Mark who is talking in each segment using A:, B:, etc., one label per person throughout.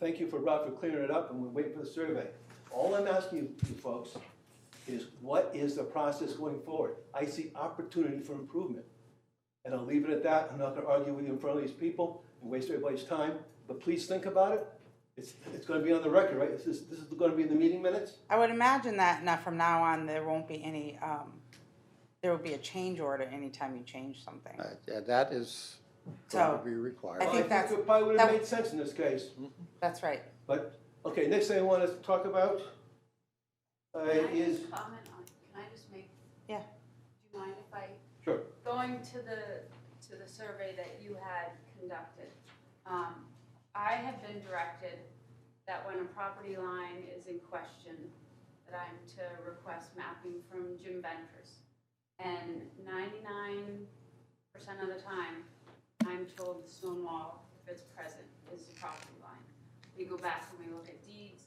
A: Thank you for Rob for clearing it up, and we're waiting for the survey. All I'm asking you, you folks, is what is the process going forward? I see opportunity for improvement. And I'll leave it at that. I'm not gonna argue with you in front of these people and waste everybody's time, but please think about it. It's, it's gonna be on the record, right? This is, this is gonna be in the meeting minutes?
B: I would imagine that now from now on, there won't be any, um, there will be a change order anytime you change something.
C: Uh, yeah, That is going
B: So,
C: to be required.
B: I
A: Well,
B: think that's-
A: it probably would have
B: that-
A: made sense in this case,
B: That's right.
A: but, okay, next thing I want to talk about uh,
D: Can I
A: is,
D: just comment on, can I just make?
B: Yeah.
D: Do you mind if I?
A: Sure.
D: Going to the, to the survey that you had conducted, um, I have been directed that when a property line is in question, that I'm to request mapping from Jim Ventris. And ninety-nine percent of the time, I'm told the stone wall, if it's present, is the property line. We go back and we look at deeds,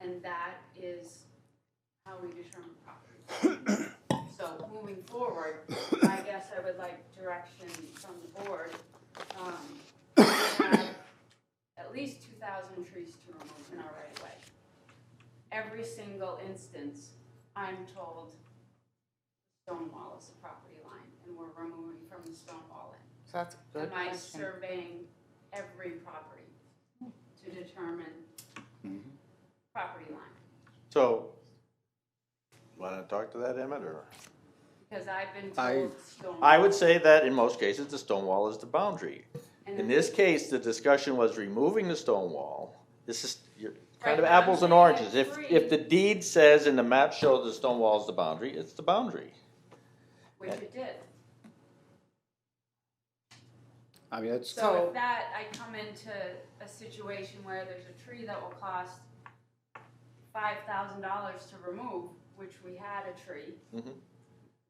D: and that is how we determine property. So moving forward, I guess I would like direction from the board. um, we have At least two thousand trees to remove in our right of way. Every single instance, I'm told stone wall is the property line and we're removing from the stone wall in.
B: So that's a good
D: Am I
B: question.
D: surveying every property to determine
E: Mm-hmm.
D: property line?
E: So, wanna talk to that, Emmett, or?
D: Because I've been
C: I-
D: told stone.
E: I would say that in most cases, the stone wall is the boundary.
D: and
E: In this case, the discussion was removing the stone wall. This is, you're kind of
D: Right, but
E: apples and
D: I'm saying
E: oranges. If,
D: it's
E: if the deed says and the map shows the stone wall is the boundary, it's the boundary.
D: Which it did.
C: I mean, it's,
D: So
B: So-
D: with that, I come into a situation where there's a tree that will cost five thousand dollars to remove, which we had a tree.
E: Mhm.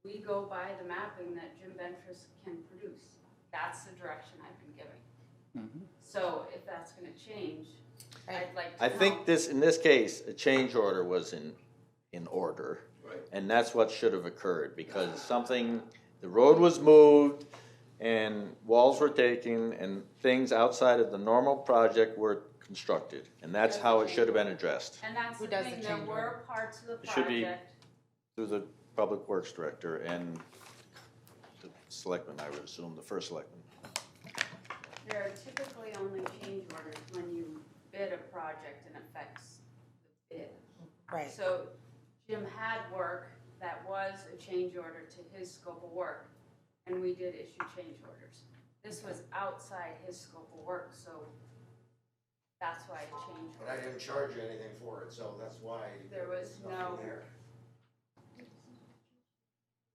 D: We go by the mapping that Jim Ventris can produce. That's the direction I've been given. So if that's gonna change, I'd like to
E: I
D: know.
E: think this, in this case, a change order was in, in order.
A: Right.
E: And that's what should have occurred, because something, the road was moved, and walls were taken, and things outside of the normal project were constructed. And that's how it should have been addressed,
D: And that's
B: Who
D: the
B: does the
D: thing, there
B: change
D: were parts of the
E: It should be-
D: project,
E: through the Public Works Director and the selectman, I would assume, the first selectman.
D: there are typically only change orders when you bid a project and affects the bid.
B: Right.
D: So Jim had work that was a change order to his scope of work, and we did issue change orders. This was outside his scope of work, so that's why a change
F: But I
D: order.
F: didn't charge you anything for it, so that's why.
D: There was
F: there's
D: no,
F: nothing there.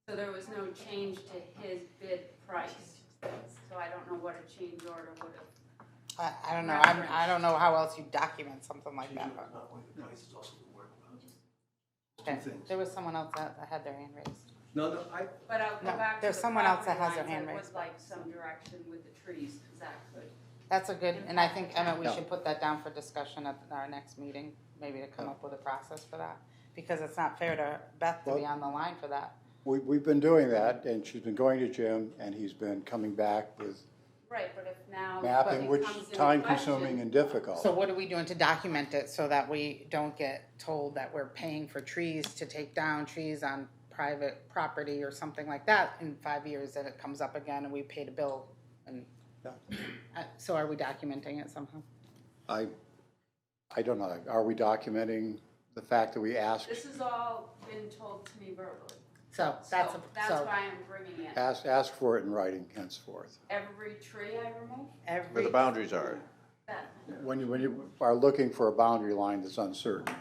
D: so there was no change to his bid price. So I don't know what a change order would have,
B: I, I don't know. I'm, I don't know how else you document something like that.
A: It's not only the price, it's also the work. Two
B: Okay.
A: things.
B: There was someone else that, that had their hand raised.
A: No, no, I,
D: but I'll
B: No,
D: go back to
B: there's
D: the
B: someone else that
D: property
B: has their
D: lines.
B: hand
D: I
B: raised.
D: would like some direction with the trees, because that could.
B: That's a good, and I think Emmett, we
C: Yeah.
B: should put that down for discussion at our next meeting, maybe to come up with a process for that. Because it's not fair to Beth to be
C: Well-
B: on the line for that.
C: we, we've been doing that, and she's been going to Jim, and he's been coming back with
D: Right, but if now.
C: mapping,
D: it
C: which
D: comes into
C: time-consuming
D: question-
C: and
B: So
C: difficult.
B: what are we doing to document it so that we don't get told that we're paying for trees to take down trees on private property or something like that in five years that it comes up again and we paid a bill and,
C: Yeah.
B: Uh, so are we documenting it somehow?
C: I, I don't know, are we documenting the fact that we asked,
D: This has all been told to me verbally.
B: So that's, a-
D: So That's
B: so
D: why I'm bringing it.
C: asked, asked for it in writing henceforth?
D: Every tree I remove,
E: Where
B: every,
E: the boundaries are,
D: that,
C: When you, when you are looking for a boundary line that's uncertain,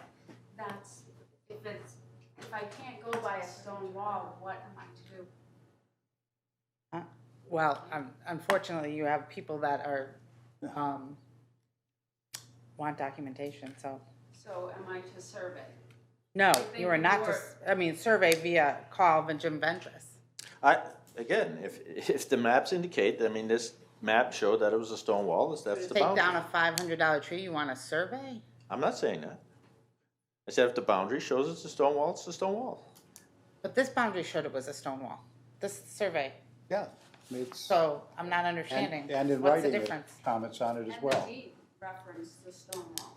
D: that's, if it's, if I can't go by a stone wall, what am I to do?
B: well, um, unfortunately, you have people that are, um, want documentation, so.
D: So am I to survey?
B: No,
D: think
B: you are not
D: more-
B: just, I mean, survey via call of Jim Ventris.
E: I, again, if, if the maps indicate, I mean, this map showed that it was a stone wall, that's- that's the
B: Take
E: boundary.
B: down a five hundred dollar tree, you want a survey?
E: I'm not saying that. I said if the boundary shows it's a stone wall, it's a stone wall.
B: But this boundary showed it was a stone wall, this survey,
C: yeah, it's,
B: so I'm not
C: and
B: understanding.
C: and in
B: What's the
C: writing, it
B: difference?
C: comments on it as
D: And the
C: well.
D: deed, reference the stone wall.